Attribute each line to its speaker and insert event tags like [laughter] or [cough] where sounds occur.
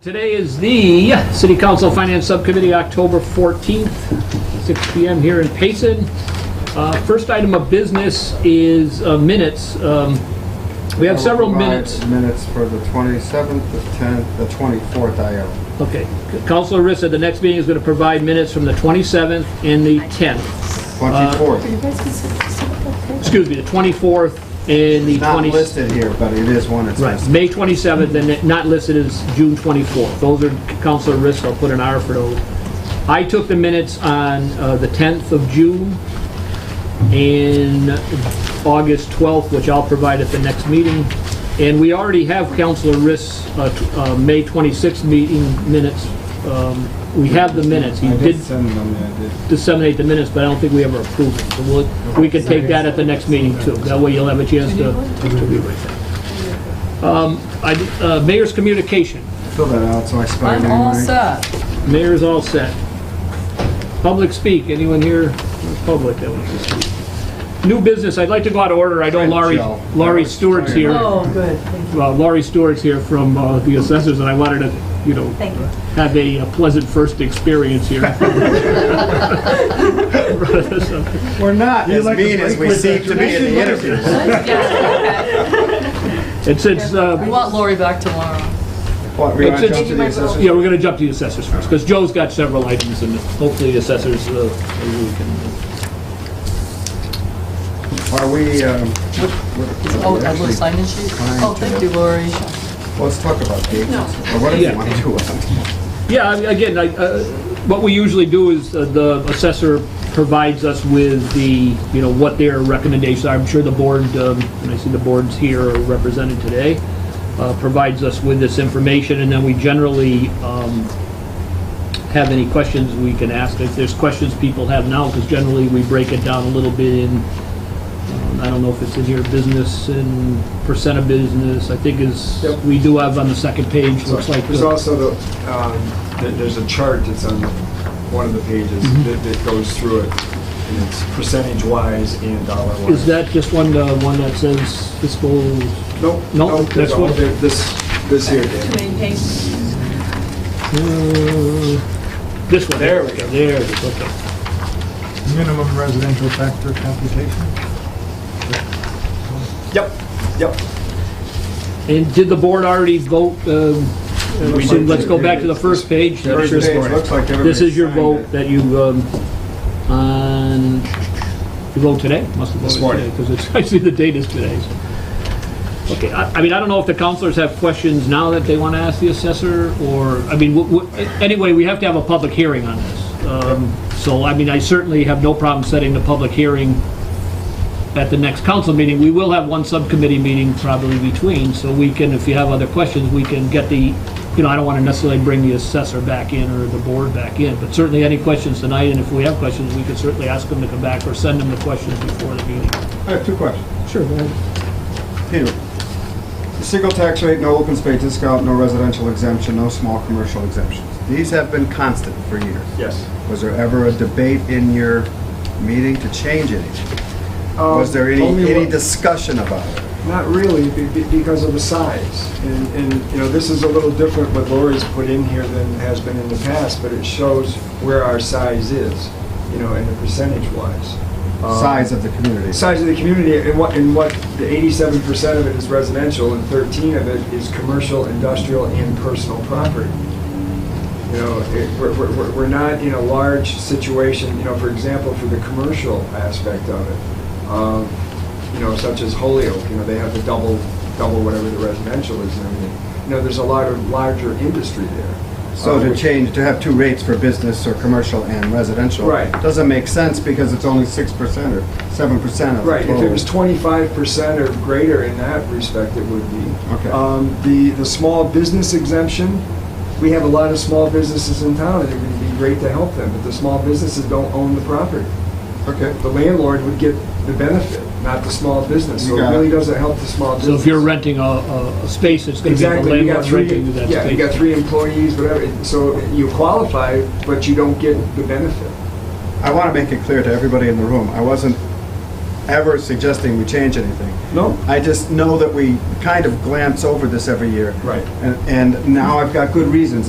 Speaker 1: Today is the City Council Finance Subcommittee, October 14th, 6 PM here in Payson. Uh, First item of business is uh, minutes. Um, We have several
Speaker 2: Provide
Speaker 1: minutes.
Speaker 2: Minutes for the 27th, the 10th, the 24th, I owe.
Speaker 1: Okay. Councilor Riss said the next meeting is going to provide minutes from the 27th and the 10th. Uh,
Speaker 2: 24th.
Speaker 3: You guys can sit- sit up there.
Speaker 1: Excuse me, the 24th and the 20th.
Speaker 2: Not listed here, but it is one that's
Speaker 1: Right,
Speaker 2: listed.
Speaker 1: May 27th, and it- not listed as June 24th. Those are Counselor Risk, I'll put an R for those. I took the minutes on uh, the 10th of June and August 12th, which I'll provide at the next meeting. And we already have Counselor Risk's uh, t- uh, May 26th meeting minutes. Um, We have the minutes. He
Speaker 4: I
Speaker 1: did
Speaker 4: did send them, yeah, I did.
Speaker 1: disseminate the minutes, but I don't think we ever approved it. So we'll, we can take that at the next meeting too. That way you'll have a chance to, to be with it. Um, I, did- uh, mayor's communication.
Speaker 2: Fill that out so I spell your
Speaker 5: I'm
Speaker 2: name
Speaker 5: all
Speaker 2: right.
Speaker 5: set.
Speaker 1: Mayor's all set. Public speak, anyone here, in the public that wants to speak? New business, I'd like to go out of order. I know Laurie,
Speaker 2: Joe.
Speaker 1: Laurie Stewart's here.
Speaker 5: Oh, good, thank you.
Speaker 1: Well, Laurie Stewart's here from uh, the assessors, and I wanted to, you know,
Speaker 5: Thank you.
Speaker 1: have a pleasant first experience
Speaker 5: [laughs]
Speaker 1: here.
Speaker 2: We're not as
Speaker 4: like to
Speaker 2: mean as
Speaker 4: break
Speaker 2: we
Speaker 4: with
Speaker 2: seem
Speaker 4: the
Speaker 2: to be in the
Speaker 4: tradition,
Speaker 2: interviews.
Speaker 1: And since, uh,
Speaker 5: We want Lori back tomorrow.
Speaker 2: What, we want to
Speaker 1: It's-
Speaker 2: jump to the
Speaker 1: it's-
Speaker 2: assessors?
Speaker 1: Yeah, we're going to jump to the assessors first, because Joe's got several items, and hopefully the assessors, uh, maybe we can-
Speaker 2: Are we, um,
Speaker 5: Oh, that little sign-in sheet? Oh, thank you, Lori.
Speaker 2: let's talk about the agency. Or what do
Speaker 1: Yeah.
Speaker 2: you want to do?
Speaker 1: yeah, I mean, again, I, uh, what we usually do is uh, the assessor provides us with the, you know, what their recommendations are. I'm sure the board, um, and I see the board's here are represented today, uh, provides us with this information, and then we generally um, have any questions we can ask. If there's questions people have now, because generally we break it down a little bit in um, I don't know if it's in here, business and percent of business, I think is,
Speaker 6: Yep.
Speaker 1: we do have on the second page, looks like.
Speaker 6: There's
Speaker 1: the-
Speaker 6: also the, um, th- there's a chart that's on one of the pages
Speaker 1: Mm-hmm.
Speaker 6: that that goes through it, and it's percentage-wise and
Speaker 1: Is
Speaker 6: dollar-wise.
Speaker 1: that just one, uh, one that says fiscal,
Speaker 6: Nope,
Speaker 1: Nope,
Speaker 6: nope,
Speaker 1: that's
Speaker 6: that's all,
Speaker 1: what-
Speaker 6: there- this, this here,
Speaker 5: Too
Speaker 6: Dan.
Speaker 5: many pages.
Speaker 1: uh, this one?
Speaker 6: There we go.
Speaker 1: There it is, okay.
Speaker 4: Minimum residential factor computation?
Speaker 6: Yep, yep.
Speaker 1: And did the board already vote, um,
Speaker 6: We
Speaker 1: so
Speaker 6: did.
Speaker 1: let's go back to the first page.
Speaker 2: First page, looks like everybody
Speaker 1: This is your
Speaker 2: signed
Speaker 1: vote
Speaker 2: it.
Speaker 1: that you, um, on, you vote today? Must have
Speaker 6: This
Speaker 1: voted today,
Speaker 6: morning.
Speaker 1: because it's, [laughs] I see the date is today. so. Okay, I, I mean, I don't know if the counselors have questions now that they want to ask the assessor, or, I mean, wh- wh- anyway, we have to have a public hearing on this. Um, So, I mean, I certainly have no problem setting the public hearing at the next council meeting. We will have one subcommittee meeting probably between, so we can, if you have other questions, we can get the, you know, I don't want to necessarily bring the assessor back in or the board back in, but certainly any questions tonight, and if we have questions, we can certainly ask them to come back or send them the questions before the meeting.
Speaker 2: I have two questions.
Speaker 1: Sure.
Speaker 2: Peter, single tax rate, no open space discount, no residential exemption, no small commercial exemptions. These have been constant for years.
Speaker 6: Yes.
Speaker 2: Was there ever a debate in your meeting to change anything? Was there any,
Speaker 6: Um, Only
Speaker 2: any
Speaker 6: one-
Speaker 2: discussion about it?
Speaker 6: Not really, be- be- because of the size. And, and, you know, this is a little different what Lori's put in here than has been in the past, but it shows where our size is, you know, and the percentage-wise. Um,
Speaker 2: Size of the community?
Speaker 6: size of the community and what, and what, the eighty-seven percent of it is residential and thirteen of it is commercial, industrial, and personal property. You know, it, we're, we're- we're, we're not in a large situation, you know, for example, for the commercial aspect of it. Um, you know, such as Holyoke, you know, they have the double, double whatever the residential is and everything. You know, there's a lot of larger industry there.
Speaker 2: So
Speaker 6: Uh,
Speaker 2: to
Speaker 6: which-
Speaker 2: change, to have two rates for business or commercial and residential?
Speaker 6: Right.
Speaker 2: Doesn't make sense because it's only six percent or seven percent of the
Speaker 6: Right, if it was
Speaker 2: total.
Speaker 6: twenty-five percent or greater in that respect, it would be.
Speaker 2: Okay.
Speaker 6: Um, the, the small business exemption, we have a lot of small businesses in town, and it would be great to help them, but the small businesses don't own the property.
Speaker 2: Okay.
Speaker 6: The landlord would get the benefit, not the small business, so
Speaker 2: You
Speaker 6: it
Speaker 2: got
Speaker 6: really
Speaker 2: it.
Speaker 6: doesn't help the small business.
Speaker 1: So if you're renting a, a a space, it's going to be the
Speaker 6: Exactly, you got
Speaker 1: landlord's
Speaker 6: three,
Speaker 1: renting that space.
Speaker 6: yeah, you got three employees, whatever, so you qualify, but you don't get the benefit.
Speaker 2: I want to make it clear to everybody in the room, I wasn't ever suggesting we change anything.
Speaker 6: No.
Speaker 2: I just know that we kind of glance over this every year.
Speaker 6: Right.
Speaker 2: And, and now I've got good reasons